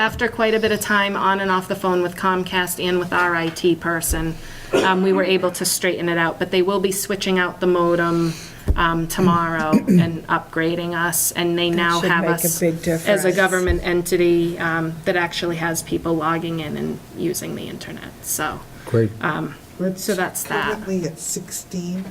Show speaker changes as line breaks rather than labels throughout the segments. after quite a bit of time on and off the phone with Comcast and with our IT person, um, we were able to straighten it out, but they will be switching out the modem um, tomorrow and upgrading us, and they now
should
have
make a
us
big
as a
difference.
government entity um, that actually has people logging in and using the internet, so,
Great.
Uh, so that's that.
Currently at 16.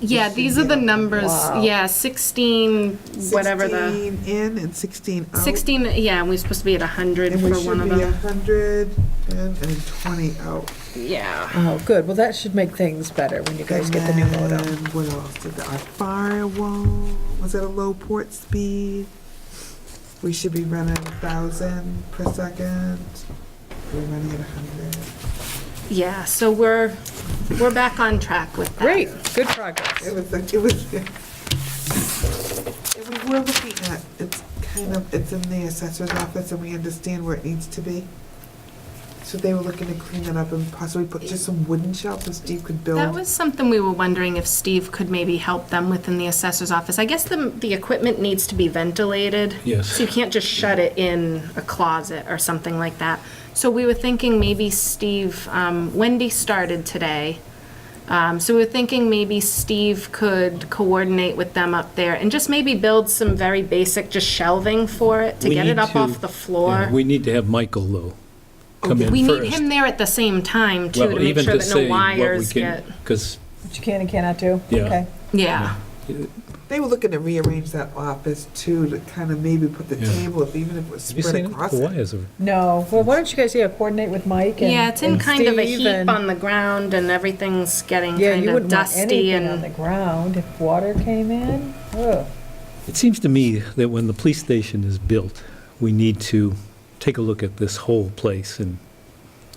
Yeah, these are the numbers,
Wow.
yeah, 16, whatever the,
16 in and 16 out.
16, yeah, and we're supposed to be at 100
And
for
we
one
should
of
be
them.
100 and and 20 out.
Yeah.
Oh, good. Well, that should make things better when you guys get the new modem.
And what else? Did the- Our firewall was at a low port speed. We should be running 1,000 per second. We're running at 100.
Yeah, so we're, we're back on track with that.
Great, good progress.
It was, like- it was, it was- we're looking at, it's kind of, it's in the assessor's office and we understand where it needs to be. So they were looking to clean that up and possibly put just some wooden shelves so Steve could build.
That was something we were wondering if Steve could maybe help them with in the assessor's office. I guess the, the equipment needs to be ventilated.
Yes.
So you can't just shut it in a closet or something like that. So we were thinking maybe Steve, um, Wendy started today. Um, so we were thinking maybe Steve could coordinate with them up there and just maybe build some very basic, just shelving for it to
We
get it
need
up
to-
off the
Yeah,
floor.
We need to have Michael, though, come in
We need
first.
him there at the same time too,
Well,
to make
even
sure that
say
no
what we
wires
can-
get,
Cause,
What you can and cannot do?
Yeah.
Okay.
yeah.
They were looking to rearrange that office too, to kind of maybe put the
Yeah.
table, if even if it was
have you
spread
seen it?
across.
The
it.
wires are
No, well, why don't you guys, yeah, coordinate with Mike and
Yeah, it's in
and
kind of a
Steve
heap
and-
on the ground and everything's getting
Yeah,
kind
you
of
wouldn't want
dusty
anything on the
and,
ground if water came in. Ugh.
It seems to me that when the police station is built, we need to take a look at this whole place, and,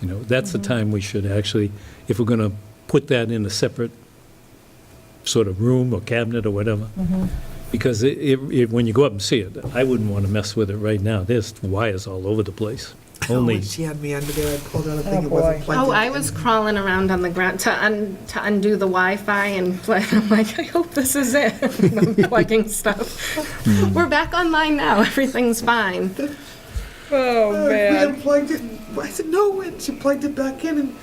you know, that's the
Mm-hmm.
time we should actually, if we're going to put that in a separate sort of room or cabinet or whatever,
Mm-hmm.
because it- it, it, when you go up and see it, I wouldn't want to mess with it right now. There's wires all over the place.
Oh,
Only,
when she had me under there, I pulled out a
Oh,
thing, it
boy.
wasn't plugged in.
oh, I was crawling around on the ground to un, to undo the Wi-Fi and play, I'm like, I hope this is it. I'm plugging stuff.
Hmm.
We're back online now, everything's fine.
Oh,
Uh, We
man.
unplugged it. and- I said, no, and she plugged it back in, and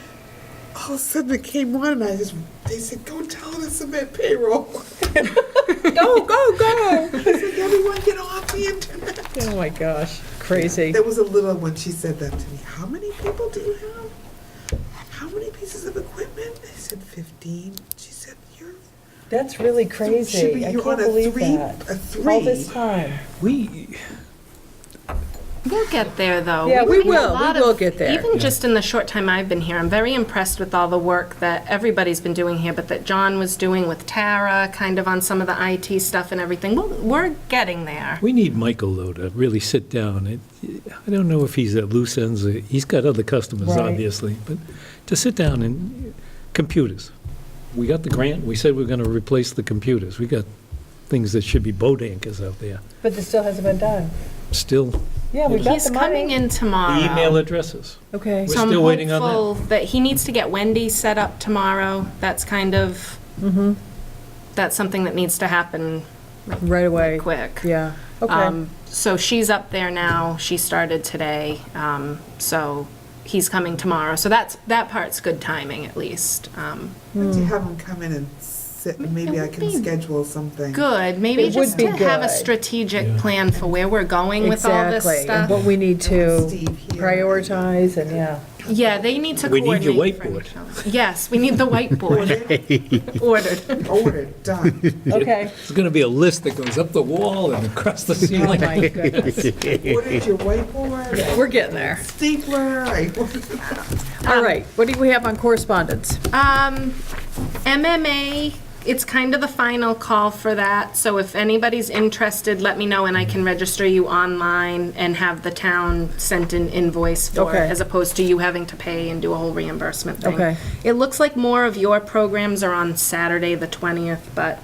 all of a sudden it came on, and I just, they said, go tell them to submit payroll.
Go, go, go.
I said, everyone get off the internet.
Oh, my gosh, crazy.
There was a little one, she said that to me. How many people do you have? How many pieces of equipment? I said, 15. She said, you're,
That's really
should
crazy.
be-
I
you're
can't
on a
believe
three-
that.
a
All
three.
this time.
we,
We'll get there, though.
Yeah, we
We've made a
will. We
lot
will
of-
get there.
Even just in the short time I've been here, I'm very impressed with all the work that everybody's been doing here, but that John was doing with Tara, kind of on some of the IT stuff and everything. We'll- We're getting there.
we need Michael, though, to really sit down. It- I don't know if he's at loose ends, he's got other customers,
Right.
obviously, but to sit down and, computers. We got the grant, we said we we're going to replace the computers. We got things that should be boat anchors out there.
But this still hasn't been done.
Still,
Yeah, we've got
He's
the
coming
money.
in tomorrow.
email addresses.
Okay.
We're still waiting on that.
So I'm hopeful that he needs to get Wendy set up tomorrow. That's kind of,
Mm-hmm.
that's something that needs to happen
Right away.
quick.
Yeah, okay.
Um, So she's up there now. She started today. Um, So he's coming tomorrow. So that's, that part's good timing at least. Um,
Would
Hmm.
you have them come in and sit, and maybe I can schedule something?
Good, maybe
It would
just
be
to have a
good.
strategic plan for where we're going with all this
Exactly. And
stuff.
what we need to
Steve here.
prioritize and, yeah.
Yeah, they need to
We
coordinate.
need your
for
whiteboard.
each other. Yes, we need the whiteboard. Ordered.
Ordered, done.
Okay.
It's going to be a list that goes up the wall and across the
Oh,
ceiling.
my goodness.
Ordered your whiteboard,
We're getting there.
stapler, I ordered
All right, what do we have on correspondence?
Um, MMA, it's kind of the final call for that, so if anybody's interested, let me know and I can register you online and have the town sent an invoice for
Okay.
it, as opposed to you having to pay and do a whole reimbursement thing.
Okay.
It looks like more of your programs are on Saturday, the 20th, but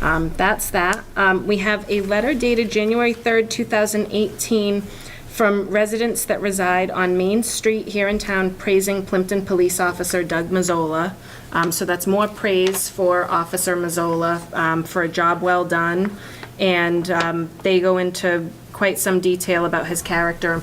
um, that's that. Um, We have a letter dated January 3rd, 2018, from residents that reside on Main Street here in town praising Plimpton Police Officer Doug Mazzola. Um, So that's more praise for Officer Mazzola um, for a job well done. And um, they go into quite some detail about his character and